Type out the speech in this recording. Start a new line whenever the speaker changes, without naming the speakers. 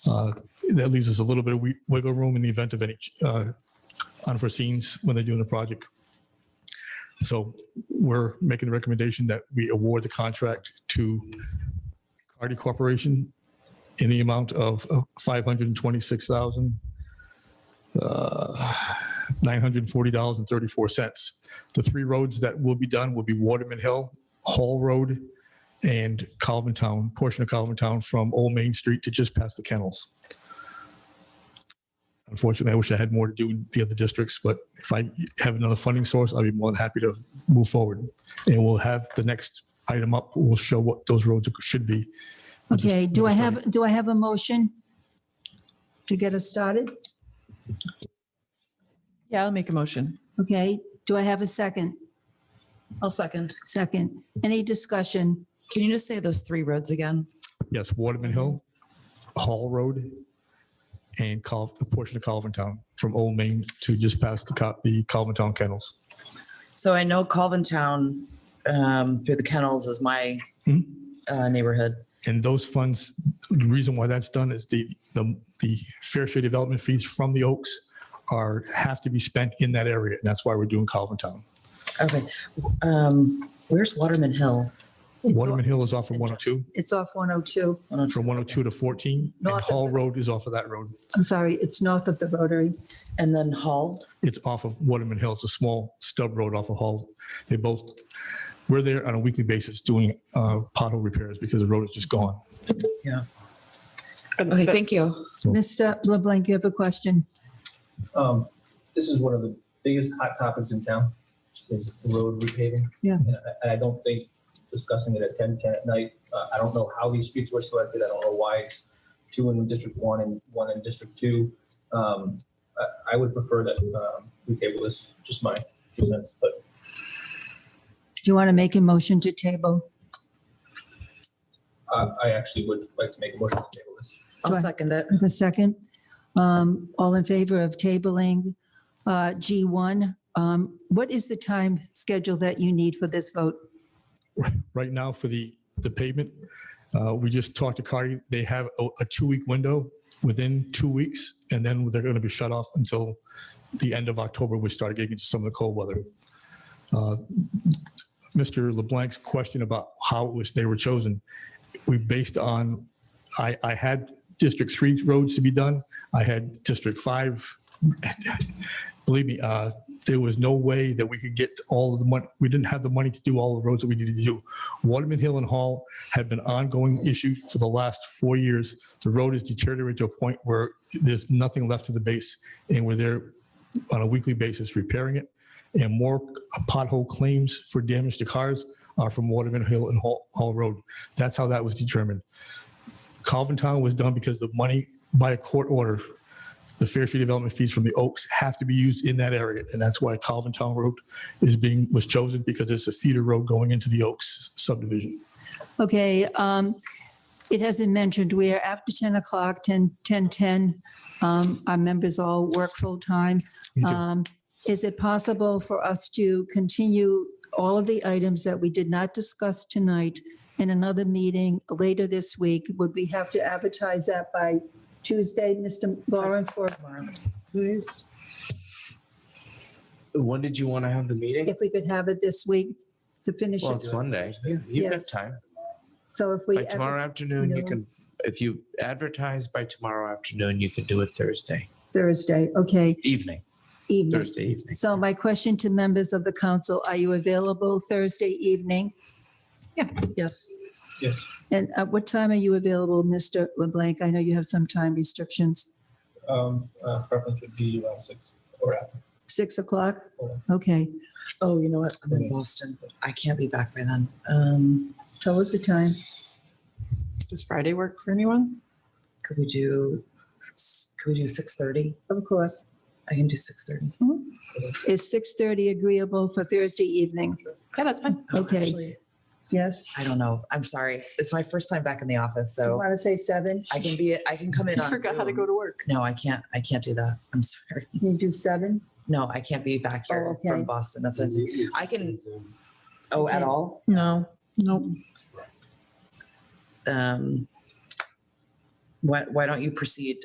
Uh, That leaves us a little bit of wi- wiggle room in the event of any uh, unforeseens when they're doing the project. So we're making the recommendation that we award the contract to Cardi Corporation in the amount of uh, $526,940.34. uh, The three roads that will be done will be Waterman Hill, Hall Road, and Calvin Town, portion of Calvin Town from Old Main Street to just past the kennels. Unfortunately, I wish I had more to do in the other districts, but if I have another funding source, I'd be more than happy to move forward. And we'll have the next item up, we'll show what those roads should be. Just-
Okay, do I
just-
have, do I have a motion to get us started?
Yeah, I'll make a motion.
Okay, do I have a second?
I'll second.
Second, any discussion?
Can you just say those three roads again?
Yes, Waterman Hill, Hall Road, and Cal, a portion of Calvin Town from Old Main to just past the Cal, the Calvin Town kennels.
So I know Calvin Town um, through the kennels is my
Hmm?
Mhm.
uh, neighborhood.
And those funds, the reason why that's done is the, the, the fair share development fees from the Oaks are, have to be spent in that area, and that's why we're doing Calvin Town.
Okay. Um, where's Waterman Hill?
It's
Waterman
off-
Hill is off of 102,
It's off 102.
from 102 to 14, and
North of
Hall Road is off of that road.
I'm sorry, it's north of the Rotary.
And then Hall?
It's off of Waterman Hill. It's a small stub road off of Hall. They both, we're there on a weekly basis doing uh, pothole repairs because the road is just gone.
Okay, thank you.
Mr. LeBlanc, you have a question?
Um, this is one of the biggest hot topics in town, is road repaving.
Yeah.
And I, and I don't think discussing it at ten, ten at night, uh, I don't know how these streets were selected, I don't know why it's two in District One and one in District Two. Um, I, I would prefer that, um, we table this, just my two cents, but
Do you want to make a motion to table?
I, I actually would like to make a motion to table this.
I'll
Go ahead.
second it.
Have a second? Um, All in favor of tabling uh, G1? Um, What is the time schedule that you need for this vote?
right now for the, the pavement. Uh, We just talked to Cardi, they have a, a two-week window within two weeks, and then they're going to be shut off until the end of October, we start getting into some of the cold weather. Uh, Mr. LeBlanc's question about how it was, they were chosen, we based on, I, I had District Three roads to be done, I had District Five. Believe me, uh, there was no way that we could get all of the money, we didn't have the money to do all the roads that we needed to do. Waterman Hill and Hall have been ongoing issues for the last four years. The road has deteriorated to a point where there's nothing left of the base, and we're there on a weekly basis repairing it. And more pothole claims for damage to cars are from Waterman Hill and Hall, Hall Road. That's how that was determined. Calvin Town was done because the money by a court order the fair share development fees from the Oaks have to be used in that area. And that's why Calvin Town Road is being, was chosen because it's a feeder road going into the Oaks subdivision.
Okay, um, it has been mentioned, we are after 10 o'clock, 10, 10, 10. Um, Our members all work full-time.
Me too.
Um, Is it possible for us to continue all of the items that we did not discuss tonight in another meeting later this week? Would we have to advertise that by Tuesday, Mr. Lauren, for
Please.
When did you want to have the meeting?
if we could have it this week to finish
Well,
it?
it's Monday. Yeah, you've got
Yes.
time.
So if we.
By tomorrow afternoon, you
No.
can, if you advertise by tomorrow afternoon, you can do it Thursday
Thursday, okay,
evening,
evening.
Thursday evening.
So my question to members of the council, are you available Thursday evening?
Yes.
Yes.
And at what time are you available, Mr. LeBlanc? I know you have some time restrictions.
Um, uh, preference would be around six or after.
Six o'clock?
Correct.
Okay,
Oh, you know what? I'm in Boston. I can't be back by then. Um,
tell us the time.
Does Friday work for anyone?
could we do, could we do 6:30?
Of course.
I can do 6:30.
Is six thirty agreeable for Thursday evening?
Yeah, that's fine.
Okay.
Actually,
Yes?
I don't know. I'm sorry. It's my first time back in the office,
You
so
want to say seven?
I can be, I can come in
You
on
forgot how to
Zoom.
go to work.
No, I can't, I can't do that. I'm sorry.
Can you do seven?
No, I can't be back
Oh,
here
okay.
from Boston. That's what I'm saying. I can, oh, at
Okay.
all?
No.
Nope.
Um, Why, why don't you proceed